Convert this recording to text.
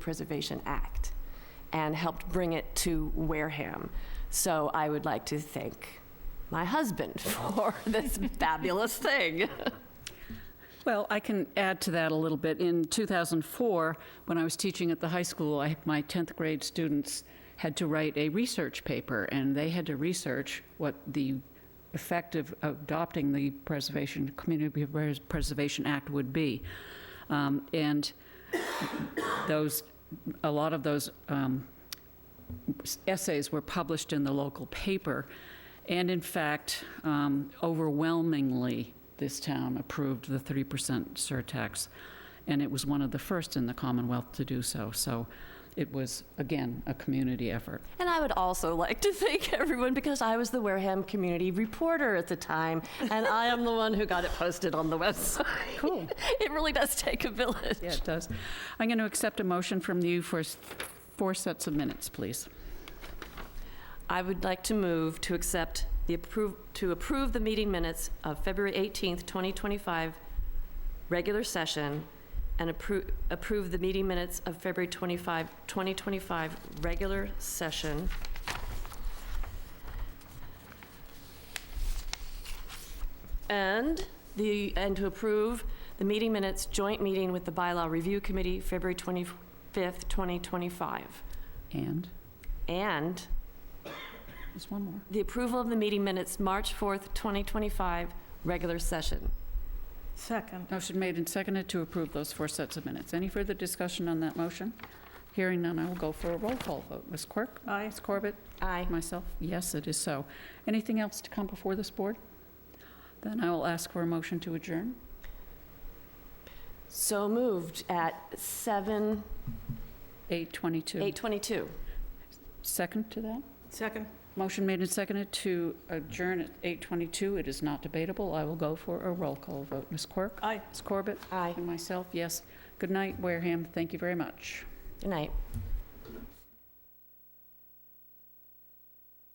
Preservation Act and helped bring it to Wareham. So I would like to thank my husband for this fabulous thing. Well, I can add to that a little bit. In 2004, when I was teaching at the high school, I, my 10th grade students had to write a research paper, and they had to research what the effect of adopting the Preservation, Community Pres- Preservation Act would be. Um, And those, a lot of those um, essays were published in the local paper. And in fact, um, overwhelmingly, this town approved the 3% surtax. And it was one of the first in the Commonwealth to do so. So it was, again, a community effort. And I would also like to thank everyone because I was the Wareham community reporter at the time, and I am the one who got it posted on the website. Cool. It really does take a village. Yeah, it does. I'm going to accept a motion from you for s- four sets of minutes, please. I would like to move to accept the approve, to approve the meeting minutes of February 18th, 2025, regular session, and approve, approve the meeting minutes of February 25, 2025, regular session. And the, and to approve the meeting minutes, joint meeting with the Bylaw Review Committee, February 25th, 2025. And And there's one more. the approval of the meeting minutes, March 4th, 2025, regular session. Second. Motion made and seconded to approve those four sets of minutes. Any further discussion on that motion? Hearing none, I will go for a roll call vote. Ms. Quirk? Aye. Ms. Corbett? Aye. Myself, yes, it is so. Anything else to come before this board? Then I will ask for a motion to adjourn. So moved at 7, 8:22. 8:22. Second to that? Second. Motion made and seconded to adjourn at 8:22. It is not debatable. I will go for a roll call vote. Ms. Quirk? Aye. Ms. Corbett? Aye. And myself, yes. Good night, Wareham. Thank you very much. Good night.